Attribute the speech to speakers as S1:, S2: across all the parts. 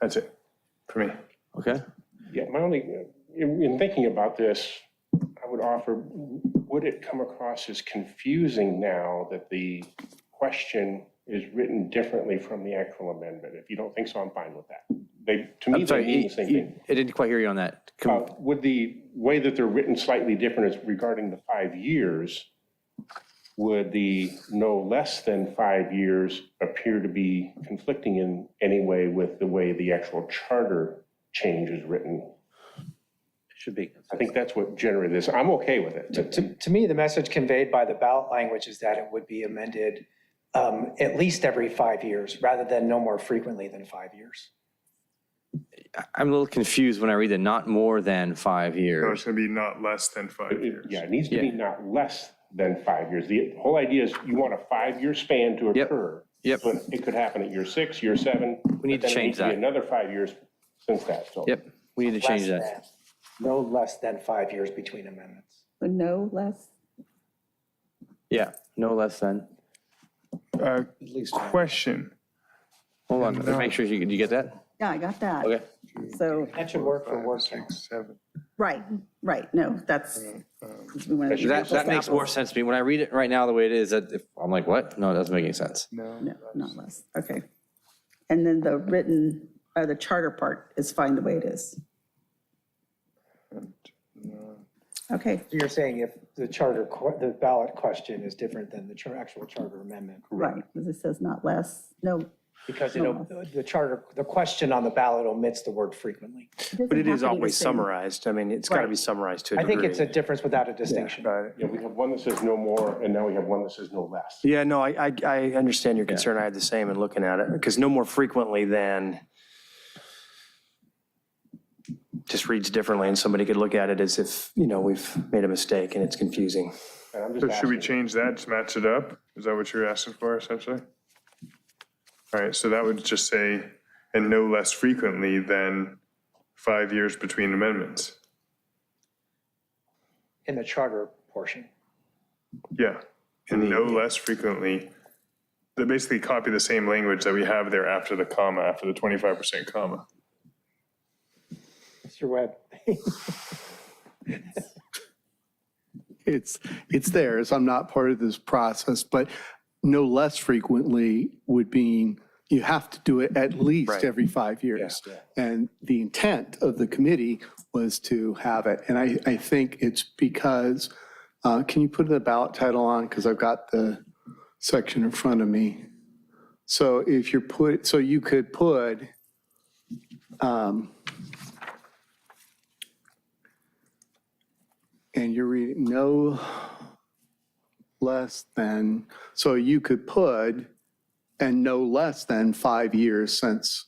S1: That's it for me.
S2: Okay,
S3: Yeah, my only, in in thinking about this, I would offer, would it come across as confusing now that the question is written differently from the actual amendment? If you don't think so, I'm fine with that. They, to me,
S2: I'm
S3: they
S2: sorry,
S3: mean
S2: e-
S3: the same
S2: e-
S3: thing.
S2: I didn't quite hear you on that. Com-
S3: Uh, Would the way that they're written slightly different is regarding the five years, would the no less than five years appear to be conflicting in any way with the way the actual charter change is written?
S4: Should be.
S3: I think that's what generated this. I'm okay with
S5: To,
S3: it.
S5: to, to me, the message conveyed by the ballot language is that it would be amended um, at least every five years, rather than no more frequently than five years.
S2: I'm a little confused when I read the not more than five
S1: So
S2: years.
S1: it's gonna be not less than five years.
S3: Yeah, it needs to be not less than five years. The whole idea is you want a five-year span to
S2: Yep.
S3: occur.
S2: Yep.
S3: But it could happen at year six, year seven. but
S2: need to
S3: then it
S2: change
S3: needs be
S2: that.
S3: Another five years since that, so.
S2: Yep, we need to change
S5: Less
S2: that.
S5: than- No less than five years between amendments.
S6: But no less,
S2: Yeah, no less than.
S1: Uh, Question,
S2: Hold on, let me make sure you, you get that?
S6: yeah, I got that.
S2: Okay.
S6: So,
S5: That should work for workshop.
S1: six, seven.
S6: right, right, no, that's.
S7: Uh, um,
S6: we wanna do
S2: That, that
S6: apples to
S2: makes more
S6: apples.
S2: sense to me. When I read it right now, the way it is, that if, I'm like, what? No, it doesn't make any sense.
S6: No, not less, okay. And then the written, uh, the charter part is fine the way it is. Okay,
S5: You're saying if the charter, que- the ballot question is different than the char- actual charter amendment?
S6: right, because it says not less, no.
S5: Because it, the charter, the question on the ballot omits the word frequently.
S7: But it is always
S6: summarized.
S7: summarized. I mean, it's got to
S6: Right.
S7: be summarized to a
S5: I
S7: degree.
S5: think it's a difference without a distinction.
S7: Right.
S3: Yeah, we have one that says no more, and now we have one that says no less.
S7: Yeah, no, I, I, I understand your concern. I had the same in looking at it, because no more frequently than just reads differently, and somebody could look at it as if, you know, we've made a mistake and it's confusing.
S3: And I'm
S1: So
S3: just
S1: should we
S3: asking,
S1: change that to match it up? Is that what you're asking for essentially? All right, so that would just say, and no less frequently than five years between amendments.
S5: In the charter portion.
S1: Yeah, and no
S8: E
S1: less frequently. They basically copy the same language that we have there after the comma, after the 25% comma.
S5: Mr. Webb,
S8: it's it's theirs. I'm not part of this process, but no less frequently would mean you have to do it at least every five years. And the intent of the committee was to have it. And I, I think it's because, uh, can you put the ballot title on? Because I've got the section in front of me. So if you're put, so you could put, um, and you're reading no less than, so you could put, and no less than five years since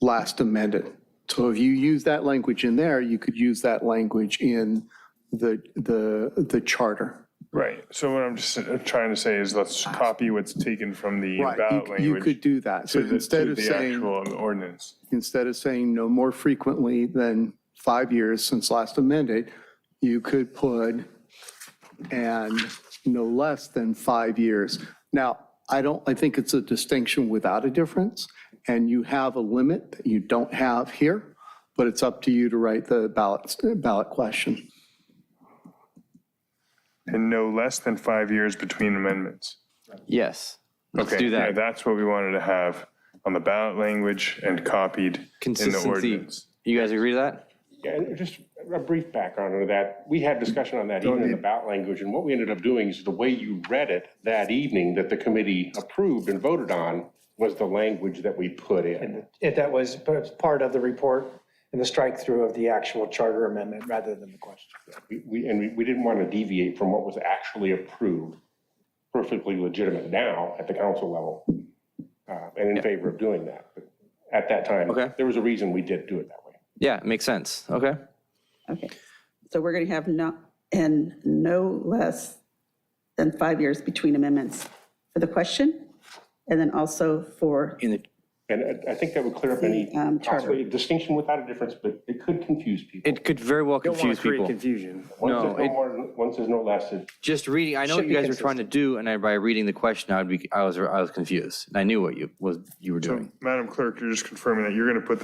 S8: last amended. So if you use that language in there, you could use that language in the, the, the charter.
S1: Right, so what I'm just uh, trying to say is let's copy what's taken from the
S8: Right,
S1: ballot
S8: you- you could
S1: language
S8: do that. So
S1: to the,
S8: instead
S1: to
S8: of
S1: the
S8: saying,
S1: actual ordinance.
S8: instead of saying no more frequently than five years since last amended, you could put and no less than five years. Now, I don't, I think it's a distinction without a difference, and you have a limit that you don't have here, but it's up to you to write the ballot, ballot question.
S1: And no less than five years between amendments.
S2: Yes, let's
S1: Okay,
S2: do
S1: yeah,
S2: that.
S1: That's what we wanted to have on the ballot language and copied in the
S2: Consistency.
S1: ordinance.
S2: You guys agree to that?
S3: yeah, and just a brief background on that. We had discussion on that even in the ballot language, and what we ended up doing is the way you read it that evening that the committee approved and voted on was the language that we put in.
S5: if that was part of the report and the strike through of the actual charter amendment rather than the question.
S3: We- We, and we, we didn't want to deviate from what was actually approved, perfectly legitimate now at the council level, uh, and in favor of doing that. But At that time,
S2: Okay.
S3: there was a reason we did do it that way.
S2: Yeah, it makes sense. Okay.
S6: Okay, so we're going to have not, and no less than five years between amendments for the question, and then also for,
S2: In the,
S3: And I I think that would clear up any
S6: The, um, charter.
S3: possibly distinction without a difference, but it could confuse people.
S2: it could very well
S7: Don't want
S2: confuse
S7: to create
S2: people.
S7: confusion.
S3: One
S2: no,
S3: says no
S2: it-
S3: more, one says no less. it-
S2: Just reading, I know what
S5: Should
S2: you
S5: be
S2: guys were trying to do, and I, by reading the question, I'd be, I was, I was confused. And I knew what you was, you were doing.
S1: Madam Clerk, you're just confirming that you're going to put